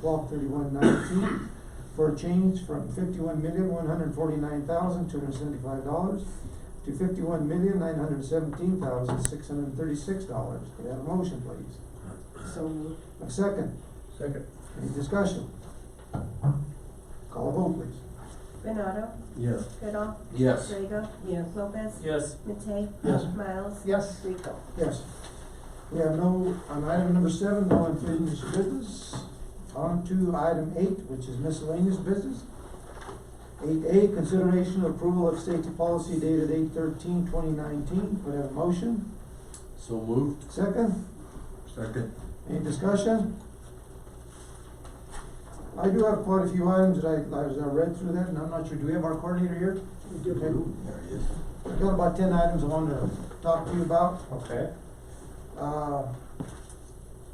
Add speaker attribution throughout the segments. Speaker 1: twelve thirty-one nineteen for a change from fifty-one million, one hundred forty-nine thousand, two hundred seventy-five dollars to fifty-one million, nine hundred seventeen thousand, six hundred thirty-six dollars. Could I have a motion, please?
Speaker 2: So moved.
Speaker 1: A second,
Speaker 3: Second.
Speaker 1: any discussion? Call a vote, please.
Speaker 4: Benado,
Speaker 3: Yes.
Speaker 4: Goodall,
Speaker 5: Yes.
Speaker 4: Drago,
Speaker 2: Yes.
Speaker 4: Lopez,
Speaker 5: Yes.
Speaker 4: Matei,
Speaker 1: Yes.
Speaker 4: Miles,
Speaker 2: Yes.
Speaker 4: Rico.
Speaker 1: Yes. We have no, on item number seven, no unfinished business. On to item eight, which is miscellaneous business. Eight A, consideration of approval of safety policy dated 8-13-2019. Could I have a motion?
Speaker 5: So moved?
Speaker 1: Second,
Speaker 3: Second.
Speaker 1: any discussion? I do have quite a few items that I, as I read through that, and I'm not sure, do we have our coordinator here? Okay.
Speaker 5: There he is.
Speaker 1: I've got about ten items I wanted to talk to you about.
Speaker 3: Okay.
Speaker 1: Uh,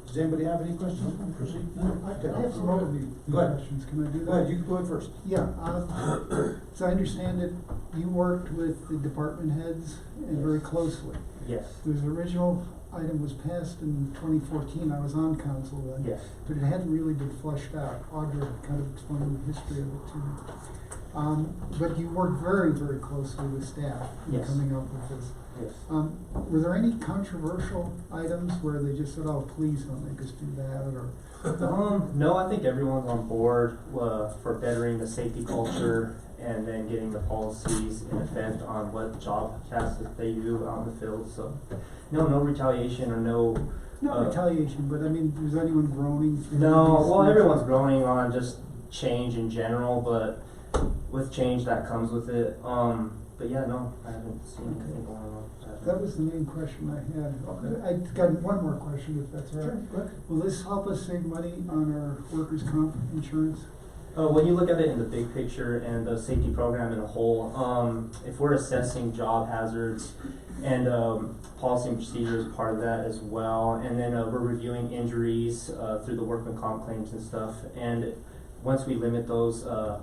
Speaker 1: Does anybody have any questions? Proceed. No,
Speaker 6: I I have some other new new
Speaker 1: Go ahead.
Speaker 6: questions, can I do that?
Speaker 1: Go ahead, you can go ahead first.
Speaker 6: Yeah, uh, so I understand that you worked with the department heads and very closely.
Speaker 3: Yes.
Speaker 6: The original item was passed in twenty fourteen, I was on council then.
Speaker 3: Yes.
Speaker 6: But it hadn't really been fleshed out, Audrey kind of explained the history of it to me. Um, but you worked very, very closely with staff in
Speaker 3: Yes.
Speaker 6: coming up with this.
Speaker 3: Yes.
Speaker 6: Um, were there any controversial items where they just said, oh, please don't make us do that, or?
Speaker 3: Um, no, I think everyone's on board, uh, for bettering the safety culture and then getting the policies in effect on what job tasks that they do on the field, so. No, no retaliation or no,
Speaker 6: Not
Speaker 3: Uh,
Speaker 6: retaliation, but I mean, was anyone groaning? through
Speaker 3: no,
Speaker 6: these
Speaker 3: well,
Speaker 6: things?
Speaker 3: everyone's growing on just change in general, but with change that comes with it, um, but yeah, no, I haven't seen anything going on.
Speaker 6: That was the main question I had.
Speaker 3: Okay.
Speaker 6: I got one more question, if that's all right.
Speaker 3: Sure.
Speaker 6: Will this help us save money on our workers' comp insurance?
Speaker 3: Uh, when you look at it in the big picture and the safety program in a whole, um, if we're assessing job hazards and um, policy and procedure is part of that as well, and then uh, we're reviewing injuries uh, through the workman comp claims and stuff, and once we limit those uh,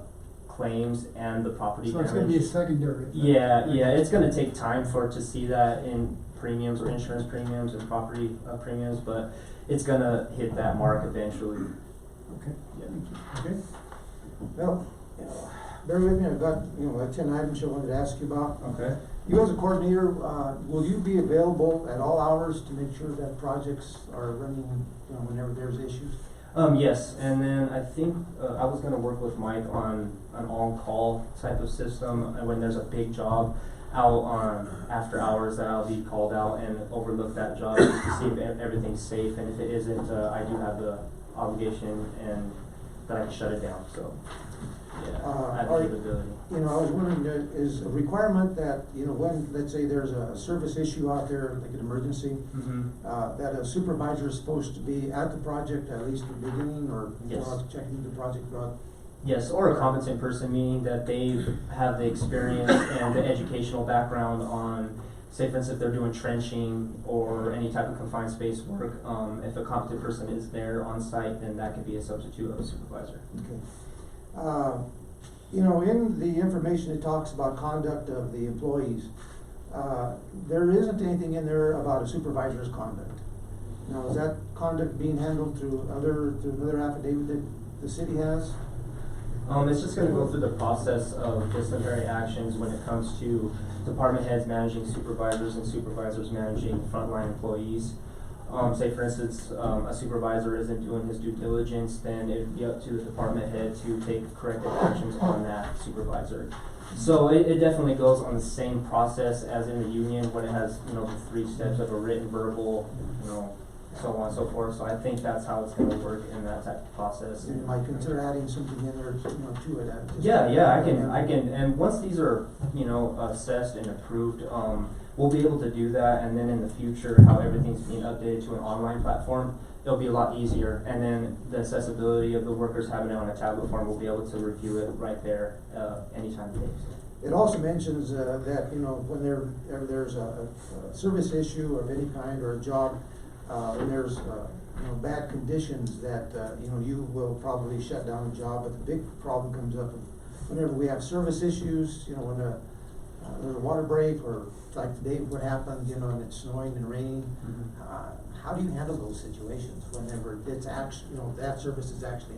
Speaker 3: claims and the property
Speaker 6: So
Speaker 3: damage,
Speaker 6: it's gonna be a secondary. effect.
Speaker 3: yeah, yeah, it's gonna take time for it to see that in premiums or insurance premiums and property uh, premiums, but it's gonna hit that mark eventually.
Speaker 6: Okay,
Speaker 3: Yeah.
Speaker 6: thank you.
Speaker 1: Okay. Well, you know, bear with me, I've got, you know, like ten items I wanted to ask you about.
Speaker 3: Okay.
Speaker 1: You as a coordinator, uh, will you be available at all hours to make sure that projects are running, you know, whenever there's issues?
Speaker 3: Um, yes, and then I think uh, I was gonna work with Mike on an on-call type of system and when there's a big job out on after hours that I'll be called out and overlook that job just to see if e- everything's safe and if it isn't, uh, I do have the obligation and that I can shut it down. So yeah,
Speaker 1: Uh,
Speaker 3: I have
Speaker 1: are-
Speaker 3: the capability.
Speaker 1: You know, I was wondering, uh, is a requirement that, you know, when, let's say there's a service issue out there, like an emergency,
Speaker 3: Mm-hmm.
Speaker 1: uh, that a supervisor is supposed to be at the project at least the beginning or
Speaker 3: Yes.
Speaker 1: throughout, checking the project throughout?
Speaker 3: Yes, or a competent person, meaning that they have the experience and the educational background on, say for instance, if they're doing trenching or any type of confined space work, um, if a competent person is there on site, then that could be a substitute of a supervisor.
Speaker 1: Okay. Uh, You know, in the information, it talks about conduct of the employees. Uh, There isn't anything in there about a supervisor's conduct. Now, is that conduct being handled through other, through another affidavit that the city has?
Speaker 3: Um, it's just gonna go through the process of disciplinary actions when it comes to department heads managing supervisors and supervisors managing frontline employees. Um, say for instance, um, a supervisor isn't doing his due diligence, then it'd be up to the department head to take corrective actions on that supervisor. So it, it definitely goes on the same process as in the union when it has, you know, the three steps of a written, verbal, you know, so on and so forth. So I think that's how it's gonna work in that type of process.
Speaker 1: You might consider adding something in there, you know, to it. uh, just-
Speaker 3: Yeah, yeah, I can, I can, and once these are, you know, assessed and approved, um, we'll be able to do that, and then in the future, how everything's being updated to an online platform, it'll be a lot easier, and then the accessibility of the workers having it on a tablet form, we'll be able to review it right there, uh, anytime today,
Speaker 1: It also mentions uh, that, you know, when there, there- there's a a service issue of any kind or a job, uh, when there's, uh, you know, bad conditions that, uh, you know, you will probably shut down the job, but the big problem comes up whenever we have service issues, you know, when uh, uh, there's a water break or like today what happened, you know, and it's snowing and raining.
Speaker 3: Mhm.
Speaker 1: Uh, how do you handle those situations whenever it's act, you know, that service is actually